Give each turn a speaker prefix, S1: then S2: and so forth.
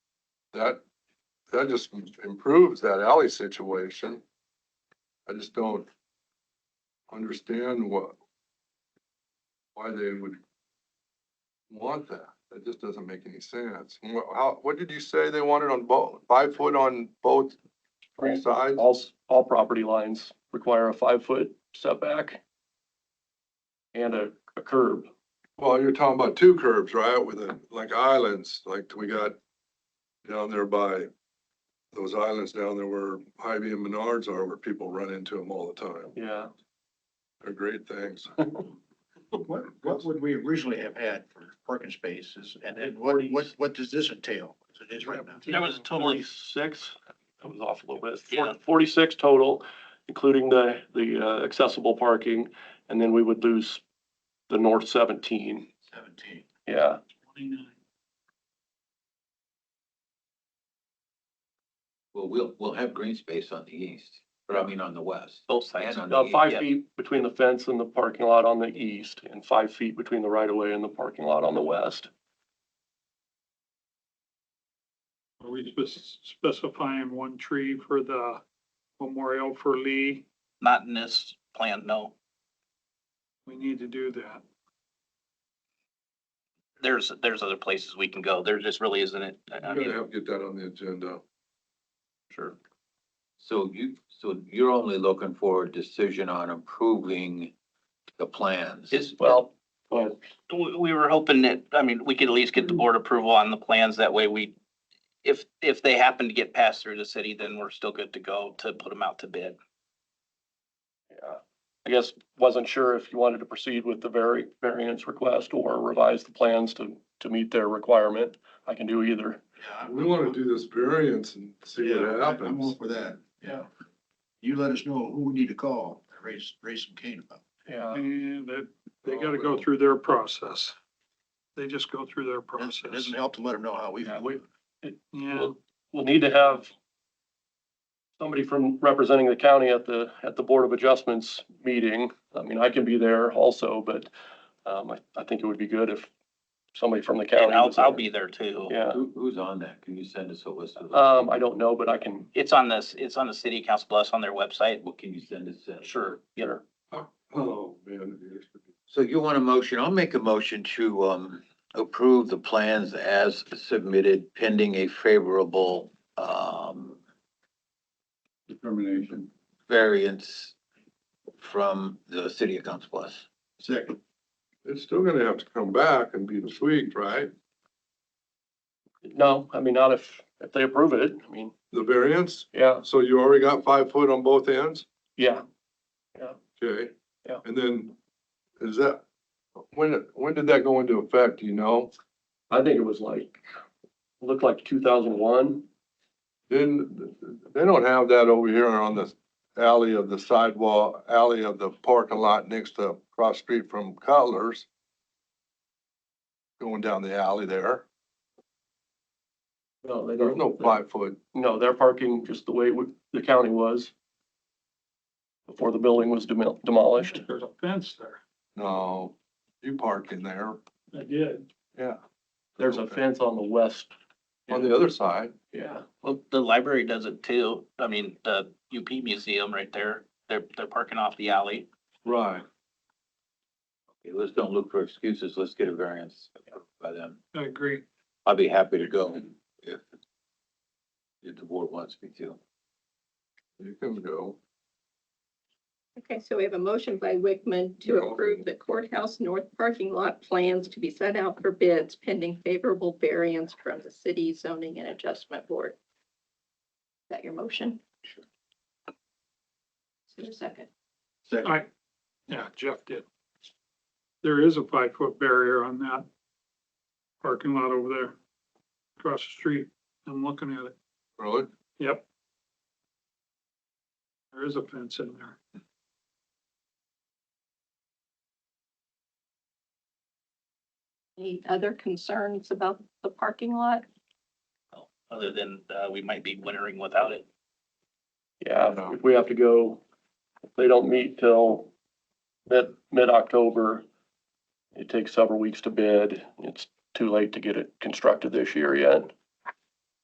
S1: That, that just improves that alley situation. I just don't understand what, why they would want that. That just doesn't make any sense. And what- How, what did you say they wanted on both, five foot on both three sides?
S2: All, s- all property lines require a five-foot setback and a, a curb.
S1: Well, you're talking about two curves, right, with the, like islands, like we got down there by those islands down there where Hy-Vee and Menards are, where people run into them all the time.
S2: Yeah.
S1: They're great things.
S3: What, what would we originally have had for parking spaces, and then what, what, what does this entail, as it is right now?
S2: That was totally six. That was off a little bit. Forty- Forty-six total, including the, the uh, accessible parking, and then we would lose the north seventeen.
S3: Seventeen.
S2: Yeah.
S4: Well, we'll, we'll have green space on the east, or I mean, on the west.
S5: Both
S4: and
S5: sides.
S4: on the
S2: Uh,
S4: east,
S2: five
S4: yeah.
S2: feet between the fence and the parking lot on the east, and five feet between the right-of-way and the parking lot on the west.
S6: Are we spec- specifying one tree for the memorial for Lee?
S5: Not in this plan, no.
S6: We need to do that.
S5: There's, there's other places we can go. There just really isn't it. I- I
S1: You're gonna
S5: mean,
S1: have to get that on the agenda.
S5: sure.
S4: So you, so you're only looking for a decision on approving the plans.
S5: Is, well,
S2: Well, but
S5: we, we were hoping that, I mean, we could at least get the board approval on the plans. That way we, if, if they happen to get passed through the city, then we're still good to go to put them out to bid.
S2: Yeah, I guess wasn't sure if you wanted to proceed with the vari- variance request or revise the plans to, to meet their requirement. I can do either.
S1: We wanna do this variance and see what
S3: I'm all
S1: happens.
S3: for that, yeah. You let us know who we need to call, raise, raise some cane about.
S2: Yeah.
S6: And that, they gotta go through their process. They just go through their
S3: It
S6: process.
S3: doesn't help to let them know how we feel.
S2: we,
S6: Yeah,
S2: we'll need to have somebody from representing the county at the, at the Board of Adjustments meeting. I mean, I can be there also, but, um, I, I think it would be good if somebody from the county.
S5: And I'll,
S2: was
S5: I'll
S2: there.
S5: be there too.
S2: Yeah,
S4: Who, who's on that? Can you send us a list of? those
S2: um, I
S4: people?
S2: don't know, but I can,
S5: It's on this, it's on the city council plus on their website.
S4: What can you send us? uh,
S5: Sure. Yeah.
S2: sure.
S1: Oh, man. it used to be-
S4: So you want a motion? I'll make a motion to, um, approve the plans as submitted pending a favorable, um,
S1: Determination.
S4: variance from the city of Council Bluffs.
S3: Second.
S1: It's still gonna have to come back and be tweaked, right?
S2: No, I mean, not if, if they approve it. I mean,
S1: The variance?
S2: yeah,
S1: So you already got five foot on both ends?
S2: yeah.
S1: Okay.
S2: Yeah.
S1: And then, is that, when, when did that go into effect, do you know?
S2: I think it was like, looked like two thousand one.
S1: Didn't, they don't have that over here on the alley of the sidewalk, alley of the parking lot next to, across street from Cutler's. Going down the alley there,
S2: No, they
S1: there's no five foot,
S2: No, they're parking just the way we- the county was before the building was demol- demolished.
S6: there's a fence there.
S1: no, you park in there,
S6: I did.
S1: yeah,
S2: There's a fence on the west.
S1: on the other side.
S2: Yeah,
S5: Well, the library does it too. I mean, the UP Museum right there, they're, they're parking off the alley.
S1: Right.
S4: Okay, Let's don't look for excuses. Let's get a variance by them.
S6: I agree.
S4: I'll be happy to go if, if the board wants me to.
S1: You can go,
S7: Okay, so we have a motion by Wickman to
S1: Yeah.
S7: approve the courthouse north parking lot plans to be set out for bids pending favorable variance from the city zoning and adjustment board. Is that your motion? Sure. Is there a second?
S3: Second.
S6: I, yeah, Jeff did. There is a five foot barrier on that parking lot over there across the street. I'm looking at it.
S1: really?
S6: Yep. There is a fence in there.
S7: Any other concerns about the parking lot?
S5: Other than, uh, we might be wintering without it.
S2: yeah, if we have to go, if they don't meet till mid, mid-October, it takes several weeks to bid. It's too late to get it constructed this year yet.